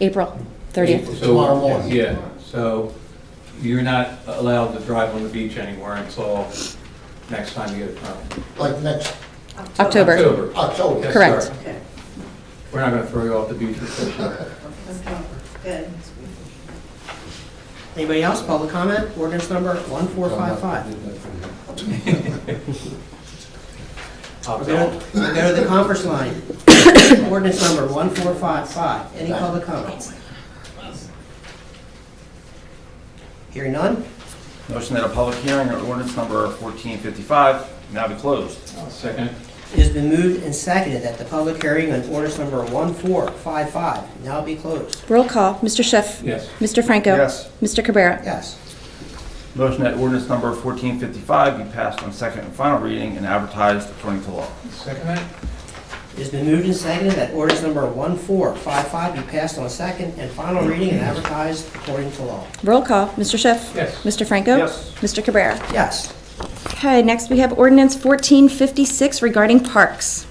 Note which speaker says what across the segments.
Speaker 1: April 30th.
Speaker 2: So-
Speaker 3: Tomorrow morning.
Speaker 2: Yeah, so you're not allowed to drive on the beach anywhere until next time you get a permit.
Speaker 3: like next
Speaker 1: October.
Speaker 3: October.
Speaker 2: Yes,
Speaker 1: Correct.
Speaker 2: sir.
Speaker 4: Okay,
Speaker 2: We're not gonna throw you off the beach. for sure.
Speaker 4: okay, good.
Speaker 5: Anybody else, public comment, ordinance number 1455.
Speaker 2: I'll
Speaker 5: We're going
Speaker 2: tell.
Speaker 5: to go to the conference line. Ordinance number 1455, any public comments? Hearing none,
Speaker 6: Motion that a public hearing on ordinance number 1455 now be closed.
Speaker 2: Second,
Speaker 5: it has been moved and seconded that the public hearing on ordinance number 1455 now be closed.
Speaker 1: Roll call, Mr. Schiff.
Speaker 2: yes.
Speaker 1: Mr. Franco.
Speaker 6: Yes.
Speaker 1: Mr. Cabrera.
Speaker 5: Yes,
Speaker 6: Motion that ordinance number 1455 be passed on second and final reading and advertised according to law.
Speaker 2: Second that?
Speaker 5: it has been moved and seconded that ordinance number 1455 be passed on second and final reading and advertised according to law.
Speaker 1: Roll call, Mr. Schiff.
Speaker 2: Yes.
Speaker 1: Mr. Franco.
Speaker 6: Yes.
Speaker 1: Mr. Cabrera.
Speaker 5: Yes,
Speaker 1: Okay, next we have ordinance 1456 regarding parks.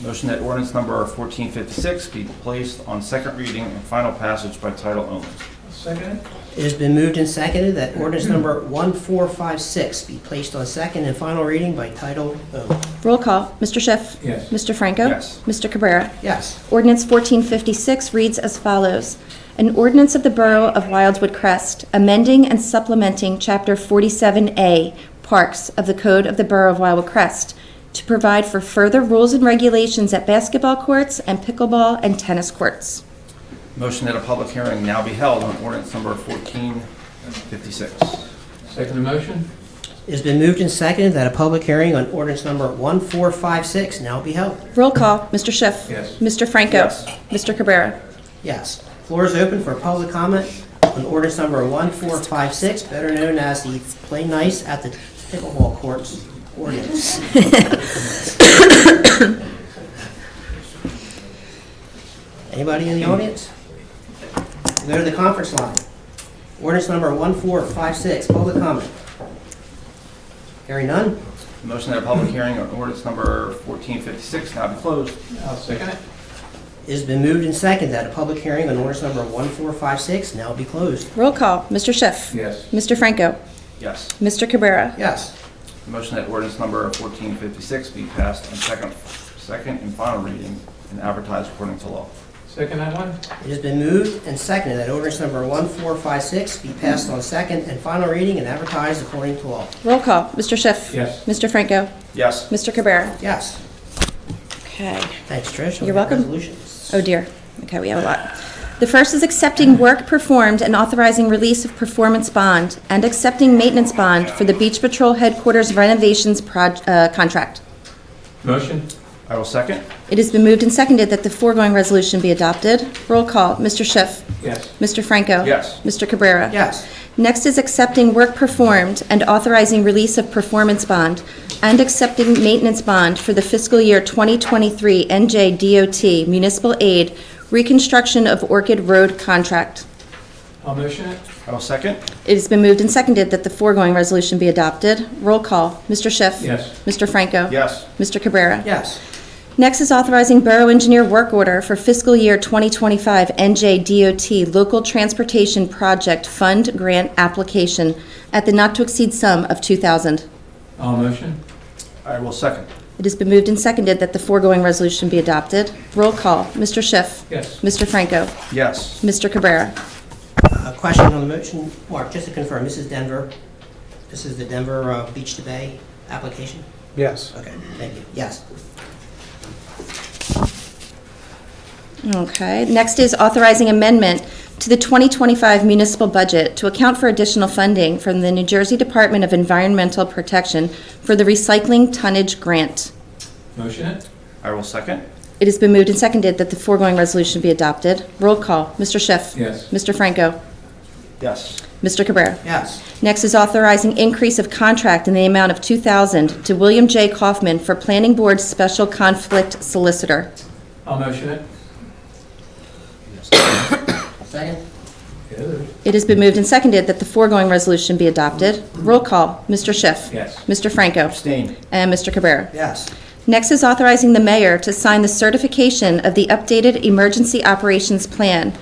Speaker 6: Motion that ordinance number 1456 be placed on second reading and final passage by title only.
Speaker 2: Second?
Speaker 5: It has been moved and seconded that ordinance number 1456 be placed on second and final reading by title only.
Speaker 1: Roll call, Mr. Schiff.
Speaker 2: Yes.
Speaker 1: Mr. Franco.
Speaker 6: Yes.
Speaker 1: Mr. Cabrera.
Speaker 5: Yes.
Speaker 1: Ordinance 1456 reads as follows. An ordinance of the Borough of Wildwood Crest amending and supplementing Chapter 47A, Parks of the Code of the Borough of Wildwood Crest to provide for further rules and regulations at basketball courts and pickleball and tennis courts.
Speaker 6: Motion that a public hearing now be held on ordinance number 1456.
Speaker 2: Second motion?
Speaker 5: It has been moved and seconded that a public hearing on ordinance number 1456 now be held.
Speaker 1: Roll call, Mr. Schiff.
Speaker 2: Yes.
Speaker 1: Mr. Franco.
Speaker 6: Yes.
Speaker 1: Mr. Cabrera.
Speaker 5: Yes. Floor is open for public comment on ordinance number 1456, better known as the Play Nice at the Pickleball Courts ordinance. Anybody in the audience? Go to the conference line. Ordinance number 1456, public comment. Hearing none?
Speaker 6: Motion that a public hearing on ordinance number 1456 now be closed.
Speaker 2: I'll second it.
Speaker 5: It has been moved and seconded that a public hearing on ordinance number 1456 now be closed.
Speaker 1: Roll call, Mr. Schiff.
Speaker 2: Yes.
Speaker 1: Mr. Franco.
Speaker 6: Yes.
Speaker 1: Mr. Cabrera.
Speaker 5: Yes.
Speaker 6: Motion that ordinance number 1456 be passed on second, second and final reading and advertised according to law.
Speaker 2: Second that one?
Speaker 5: It has been moved and seconded that ordinance number 1456 be passed on second and final reading and advertised according to law.
Speaker 1: Roll call, Mr. Schiff.
Speaker 2: Yes.
Speaker 1: Mr. Franco.
Speaker 6: Yes.
Speaker 1: Mr. Cabrera.
Speaker 5: Yes.
Speaker 1: Okay.
Speaker 5: Thanks, Trish.
Speaker 1: You're welcome.
Speaker 5: Resolutions.
Speaker 1: Oh dear. Okay, we have a lot. The first is accepting work performed and authorizing release of performance bond and accepting maintenance bond for the Beach Patrol Headquarters renovations proj- uh, contract.
Speaker 2: Motion?
Speaker 6: I will second.
Speaker 1: It has been moved and seconded that the foregoing resolution be adopted. Roll call, Mr. Schiff.
Speaker 2: Yes.
Speaker 1: Mr. Franco.
Speaker 6: Yes.
Speaker 1: Mr. Cabrera.
Speaker 5: Yes.
Speaker 1: Next is accepting work performed and authorizing release of performance bond and accepting maintenance bond for the fiscal year 2023 NJ DOT municipal aid reconstruction of Orchid Road contract.
Speaker 2: I'll motion it?
Speaker 6: I will second.
Speaker 1: It has been moved and seconded that the foregoing resolution be adopted. Roll call, Mr. Schiff.
Speaker 2: Yes.
Speaker 1: Mr. Franco.
Speaker 6: Yes.
Speaker 1: Mr. Cabrera.
Speaker 5: Yes.
Speaker 1: Next is authorizing Borough Engineer Work Order for fiscal year 2025 NJ DOT Local Transportation Project Fund Grant Application at the not-to-exceed sum of 2000
Speaker 2: I'll motion?
Speaker 6: I will second.
Speaker 1: It has been moved and seconded that the foregoing resolution be adopted. Roll call, Mr. Schiff.
Speaker 2: Yes.
Speaker 1: Mr. Franco.
Speaker 6: Yes.
Speaker 1: Mr. Cabrera.
Speaker 5: A question on the motion, Mark, just to confirm, this is Denver, this is the Denver uh, Beach to Bay application?
Speaker 7: Yes.
Speaker 5: Okay, thank you. Yes.
Speaker 1: Okay, next is authorizing amendment to the 2025 municipal budget to account for additional funding from the New Jersey Department of Environmental Protection for the recycling tonnage grant.
Speaker 2: Motion it?
Speaker 6: I will second.
Speaker 1: It has been moved and seconded that the foregoing resolution be adopted. Roll call, Mr. Schiff.
Speaker 2: Yes.
Speaker 1: Mr. Franco.
Speaker 6: Yes.
Speaker 1: Mr. Cabrera.
Speaker 5: Yes.
Speaker 1: Next is authorizing increase of contract in the amount of 2000 to William J. Kaufman for Planning Board Special Conflict Solicitor.
Speaker 2: I'll motion it?
Speaker 5: Second?
Speaker 1: It has been moved and seconded that the foregoing resolution be adopted. Roll call, Mr. Schiff.
Speaker 2: Yes.
Speaker 1: Mr. Franco.
Speaker 6: Abstain.
Speaker 1: And Mr. Cabrera.
Speaker 5: Yes.
Speaker 1: Next is authorizing the mayor to sign the certification of the updated Emergency Operations Plan